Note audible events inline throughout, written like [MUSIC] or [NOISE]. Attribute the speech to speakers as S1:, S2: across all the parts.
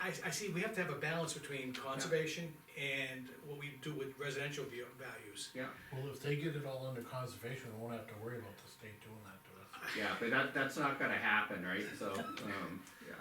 S1: I, I see, we have to have a balance between conservation and what we do with residential view, values.
S2: yeah,
S3: Well, if they get it all under conservation, we won't have to worry about the state doing that to us.
S2: yeah, but that, that's not gonna happen, right, so, um, yeah.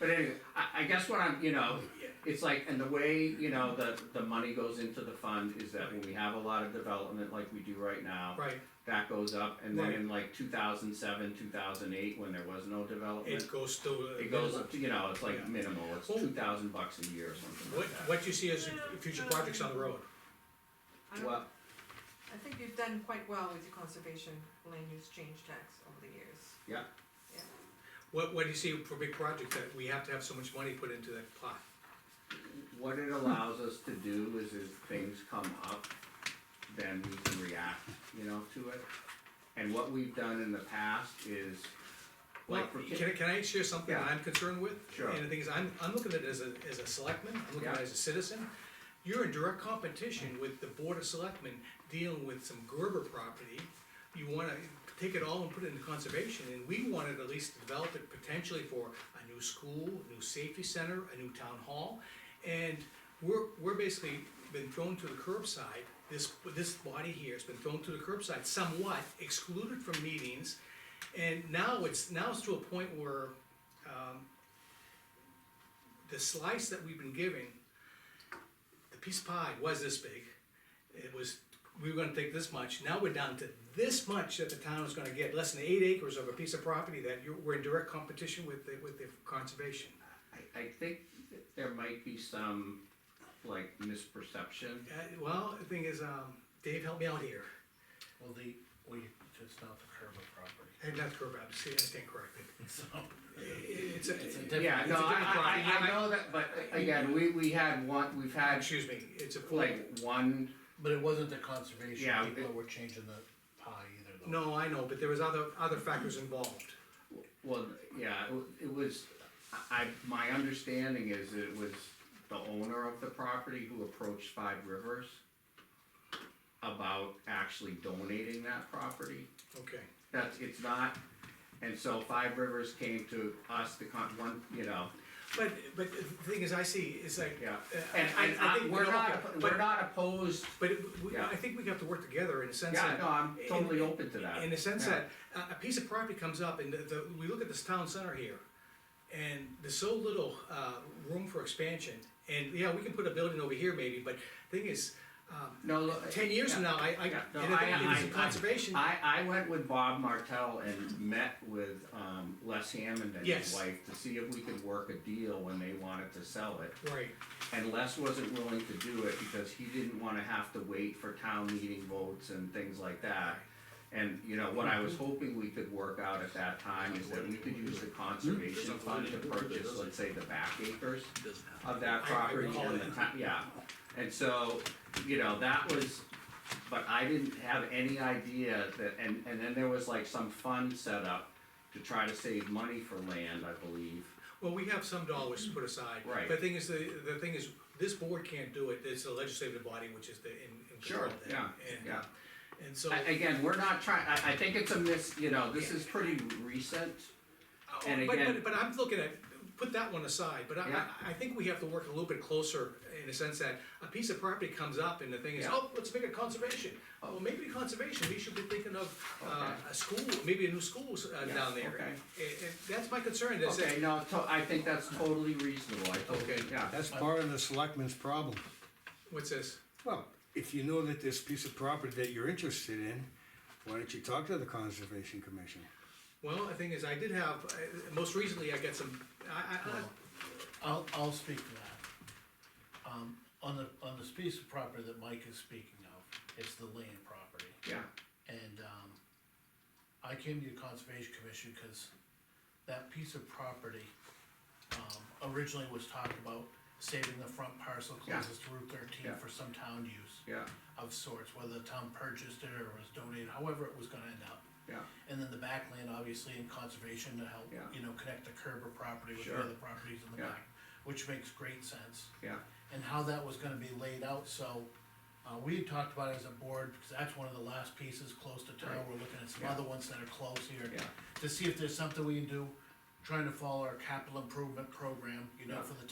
S2: But anyway, I, I guess what I'm, you know, it's like, and the way, you know, the, the money goes into the fund is that when we have a lot of development like we do right now,
S1: Right,
S2: that goes up, and then
S1: Right.
S2: in like two thousand seven, two thousand eight, when there was no development,
S1: it goes to.
S2: it goes up to, you know, it's
S1: Yeah.
S2: like minimal, it's
S1: Well-
S2: two thousand bucks a year or something
S1: What,
S2: like that.
S1: what you see as future projects on the road,
S4: I don't-
S2: Well,
S4: I think you've done quite well with your conservation land use change tax over the years.
S2: yeah,
S1: what, what do you see for big projects that we have to have so much money put into that plot?
S2: what it allows us to do is if things come up, then we can react, you know, to it. And what we've done in the past is,
S1: Well,
S2: like, for
S1: can, I- can I share something
S2: Yeah.
S1: I'm concerned with?
S2: Sure.
S1: And the thing is, I'm, I'm looking at it as a, as a selectman, I'm looking at
S2: Yeah.
S1: it as a citizen. You're in direct competition with the board of selectmen dealing with some Gerber property. You wanna take it all and put it into conservation, and we wanted at least to develop it potentially for a new school, a new safety center, a new town hall. And we're, we're basically been thrown to the curbside, this, this body here has been thrown to the curbside somewhat, excluded from meetings. And now it's, now it's to a point where, um, the slice that we've been giving, the piece of pie was this big. It was, we were gonna take this much, now we're down to this much that the town is gonna get, less than eight acres of a piece of property that you're, we're in direct competition with the, with the conservation.
S2: I, I think that there might be some, like, misperception.
S1: Uh, well, the thing is, um, Dave, help me out here.
S3: Well, the, we, it's not the Kerber property, [LAUGHS]
S1: I have not to about, see, I stand corrected.
S3: so.
S1: It's a,
S3: It's a
S1: it's
S3: different.
S2: Yeah, no,
S1: It's a different
S2: I, I, I
S1: property.
S2: know that, but again, we, we had one, we've
S1: a,
S2: had
S1: excuse me, it's a full,
S2: like one,
S3: But it wasn't the conservation,
S2: Yeah,
S3: people
S2: it-
S3: that were changing the pie either though.
S1: no, I know, but there was other, other factors involved.
S2: well, yeah, it wa- it was, I, my understanding is that it was the owner of the property who approached Five Rivers about actually donating that property.
S1: Okay,
S2: That's, it's not, and so Five Rivers came to us, the con, one, you know,
S1: but, but the thing is, I see, it's like,
S2: yeah.
S1: Uh,
S2: And,
S1: I-
S2: and
S1: I
S2: I,
S1: think we
S2: we're
S1: all
S2: not,
S1: get-
S2: oppo-
S1: but-
S2: we're not opposed,
S1: But it- we-
S2: Yeah.
S1: I think we have to work together in a sense
S2: yeah, no,
S1: that,
S2: I'm totally open to that.
S1: in the sense
S2: Yeah.
S1: that, a, a piece of property comes up and the, the, we look at this town center here. And there's so little, uh, room for expansion, and, yeah, we can put a building over here maybe, but thing is, um,
S2: No, look,
S1: ten years from
S2: yeah.
S1: now, I, I,
S2: Yeah, no,
S1: and if
S2: I-
S1: it- if
S2: I-
S1: it's conservation,
S2: I, I went with Bob Martell and met with, um, Les Hammond and his
S1: Yes.
S2: wife to see if we could work a deal when they wanted to sell it.
S1: right,
S2: And Les wasn't willing to do it because he didn't wanna have to wait for town meeting votes and things like that. And, you know, what I was hoping we could work out at that time is that we could use the conservation fund to purchase, let's say, the back acres of
S1: I-
S2: that
S1: I
S2: property
S1: recall
S2: and the
S1: that.
S2: ti- yeah. And so, you know, that was, but I didn't have any idea that, and, and then there was like some fund set up to try to save money for land, I believe.
S1: well, we have some dollars put aside.
S2: Right.
S1: But the thing is, the, the thing is, this board can't do it, it's a legislative body which is the, in, in control
S2: Sure,
S1: of that.
S2: yeah,
S1: And-
S2: yeah.
S1: And so.
S2: I- Again, we're not trying, I, I think it's a mis, you know, this is pretty recent.
S1: Oh,
S2: And
S1: but-
S2: again-
S1: But, but I'm looking at, put that one aside, but I,
S2: Yeah.
S1: I, I think we have to work a little bit closer in a sense that a piece of property comes up and the thing is,
S2: Yeah.
S1: oh, let's make it conservation. Well, maybe conservation, we should be thinking of, uh,
S2: Okay.
S1: a school, maybe a new school, uh,
S2: Yeah,
S1: down there.
S2: okay.
S1: And, and that's my concern, that's
S2: Okay,
S1: it.
S2: no, to- I think that's totally reasonable, I
S1: Okay.
S2: totally, yeah.
S5: That's part of the selectmen's problem.
S1: What's this?
S5: Well, if you know that this piece of property that you're interested in, why don't you talk to the conservation commission?
S1: Well, the thing is, I did have, uh, most recently I got some, I, I, I,
S3: I'll, I'll speak to that. Um, on the, on this piece of property that Mike is speaking of, it's the land property.
S2: Yeah,
S3: And, um, I came to the conservation commission because that piece of property, um, originally was talked about saving the front parcel
S2: Yeah.
S3: closest to Route thirteen
S2: Yeah.
S3: for some town use
S2: yeah,
S3: of sorts, whether the town purchased it or was donated, however it was gonna end up.
S2: yeah,
S3: And then the backland, obviously, in conservation to help,
S2: Yeah.
S3: you know, connect the Kerber property with the
S2: Sure.
S3: other properties in the
S2: Yeah.
S3: back, which makes great sense.
S2: yeah,
S3: And how that was gonna be laid out, so, uh, we had talked about it as a board, because that's one of the last pieces close to town,
S2: Right.
S3: we're looking at some
S2: Yeah.
S3: other ones that are close here.
S2: Yeah.
S3: To see if there's something we can do, trying to follow our capital improvement program, you know,
S2: Yeah.
S3: for the